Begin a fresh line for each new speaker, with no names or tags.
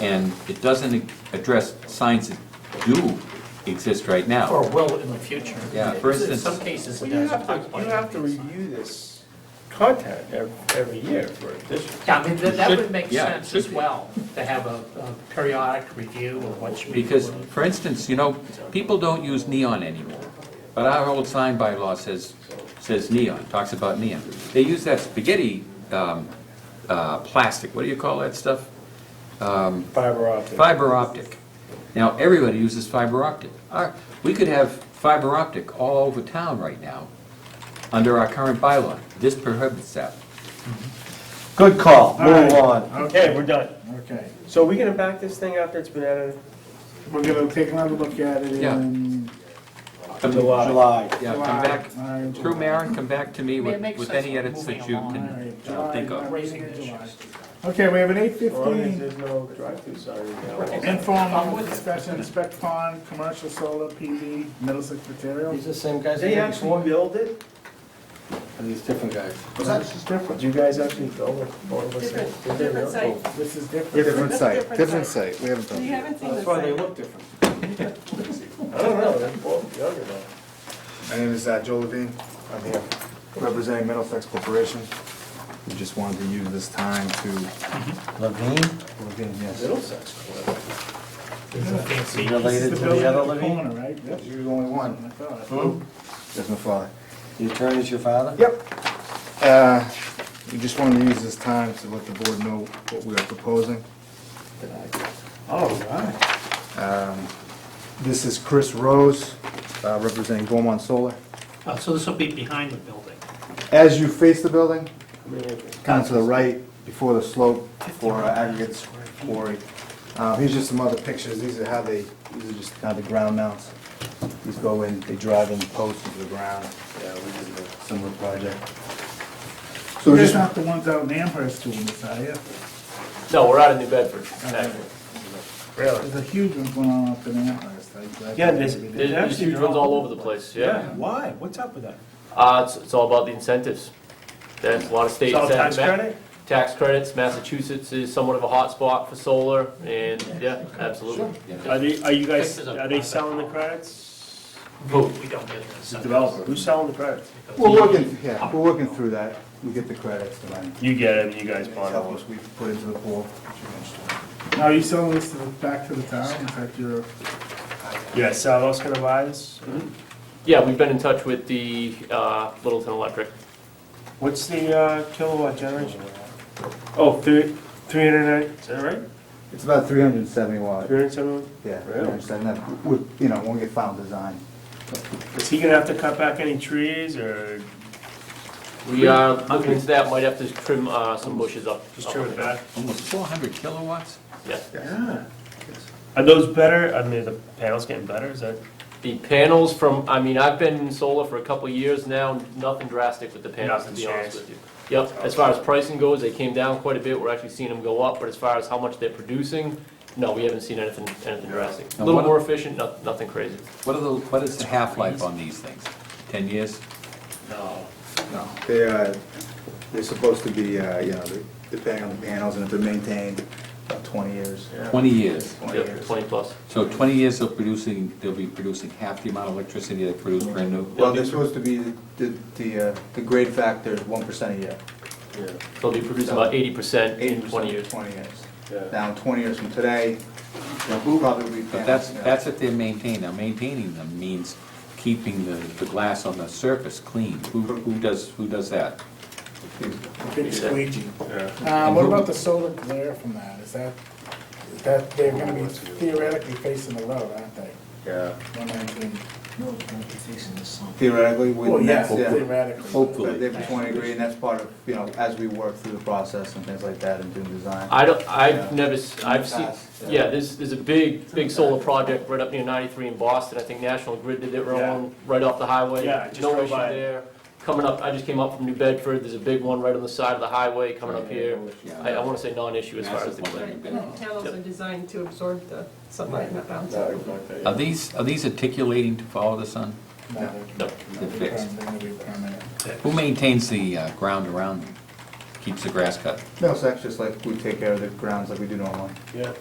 And it doesn't address signs that do exist right now.
Or will in the future.
Yeah, for
In
instance-
some cases it
Well, you have
does.
to, you have to review this content ev- every year for additional.
Yeah, I mean, that that would make
Yeah, it
sense
should
as
be.
well, to have a a periodic review of what should be.
Because,
included.
for instance, you know, people don't use neon anymore. But our old sign bylaw says, says neon, talks about neon. They use that spaghetti, um, uh, plastic, what do you call that stuff? Um,
Fiber optic.
Fiber optic. Now, everybody uses fiber optic. Our- We could have fiber optic all over town right now, under our current bylaw. This prohibits that.
Good call,
All right.
move on.
Okay, we're done.
Okay,
So are we gonna back this thing after it's been edited?
we're gonna take another look at it
Yeah.
in.
Come-
July.
Yeah, come back,
July, all right,
through
July.
Maren, come back to me
May it
with,
make
with
sense
any
of
edits that
moving
you
along.
All
can
right,
uh,
July,
think of.
Raising
Raising
July.
issues.
Okay, we have an eight
As long as
fifteen
there's no drive-through sign.
Right. I'm
informal
with you.
discussion, inspect pond, commercial solar PV, Middlesex materials.
These the same guys
They actually build it?
Are these different guys?
This is different,
Did you guys actually build it? Or was it-
Different,
did they
different
really?
site.
this is different.
Different
That's
site,
different
different
site.
site, we haven't done
You
that.
haven't seen the
That's why they
site.
look different.
I don't know, they're both younger though.
My name is uh, Joe Levine, I'm here representing Middlesex Corporation. We just wanted to use this time to,
Levine,
Levine, yes.
Middlesex.
It's a fancy-
This is
related
the
to the
building in
other
the
Levine?
corner, right? Yep.
You're the only
I
one,
thought.
that's my father.
The attorney's your father?
Yep. Uh, We just wanted to use this time to let the board know what we are proposing.
All right.
Um, This is Chris Rose, uh, representing Beaumont Solar.
Uh, So this will be behind the building.
As you face the building,
I mean, it-
kind of to the right, before the slope, for our aggregates quarry. Uh, Here's just some other pictures, these are how they, these are just kind of the ground mounts. These go in, they drive in posts into the ground, yeah, we did a similar project. So
There's
just,
not the ones out in Amherst doing this, are you?
No, we're out of New Bedford, actually. Really?
There's a huge one going on up in Amherst.
Yeah, there's,
There's there's huge ones all over the place, yeah.
Why? What's up with that?
Uh, it's, it's all about the incentives. There's a lot of states.
It's all
that-
tax credit?
Tax credits, Massachusetts is somewhat of a hot spot for solar, and, yeah, absolutely.
Are they, are you guys,
Fixes up
are they
on that.
selling the credits?
We don't get this.
Who's selling the credits?
we're working, yeah, we're working through that, we get the credits, the money.
You get it, and you guys
It's
bond
help
it.
us, we put into the pool.
Now, are you selling this to the, back to the town? Is that your?
Yeah, Salvo's gonna buy this?
Yeah, we've been in touch with the, uh, Littleton Electric.
What's the uh, kilowatt generation? Oh, three, three hundred and, is that right?
It's about three hundred and seventy watt,
Three hundred and seventy?
yeah,
Really?
370. that, we, you know, when we get final design.
Is he gonna have to cut back any trees, or
We are looking into that, might have to trim, uh, some bushes up.
just trim it back?
Almost four hundred kilowatts?
Yeah.
Are those better, I mean, are the panels getting better, is that?
The panels from, I mean, I've been in solar for a couple of years now, nothing drastic with the panels, to
Nothing's
be honest
changed.
with you. Yep, as far as pricing goes, they came down quite a bit, we're actually seeing them go up, but as far as how much they're producing, no, we haven't seen anything, anything drastic. A
Now,
little
what-
more efficient, no- nothing crazy.
What are the, what is the half-life on these things? Ten years?
No.
No, they, uh, they're supposed to be, uh, you know, they- depending on the panels and if they're maintained, about twenty years.
Twenty years.
Yep, twenty plus.
So twenty years they'll producing, they'll be producing half the amount of electricity they produce brand new?
Well, they're supposed to be, the, the, uh, the grade factor is one percent a year.
They'll be producing about eighty percent in
80%
twenty years.
Twenty years. Now, in twenty years from today, they'll probably be.
But that's, that's if they're maintained. Now, maintaining them means keeping the, the glass on the surface clean. Who, who does, who does that?
Big squeegee.
Yeah.
Uh, what about the solar glare from that? Is that, is that, they're gonna be theoretically facing the road, aren't they?
Yeah.
When they're doing-
Theoretically, we.
Well, yeah,
that's-
theoretically.
Hopefully.
But they're between degree, and that's part of, you know, as we work through the process and things like that and doing design.
I don't, I've
Yeah.
never, s- I've seen,
Past, yeah.
yeah, there's, there's a big, big solar project right up near ninety-three in Boston, I think National Grid did their
Yeah.
own, right off the highway.
Yeah, I just
No
drove
issue
by it.
there. Coming up, I just came up from New Bedford, there's a big one right on the side of the highway coming up here.
Yeah.
I, I wanna say non-issue as far as
Massive
the
one.
glare.
Right, and the panels are designed to absorb the sunlight that bounces.
Are these, are these articulating to follow the sun?
No.
They're fixed.
They're gonna be permanent.
Who maintains the uh, ground around them? Keeps the grass cut?
No, so that's just like, we take care of the grounds like we do normally.
Yeah.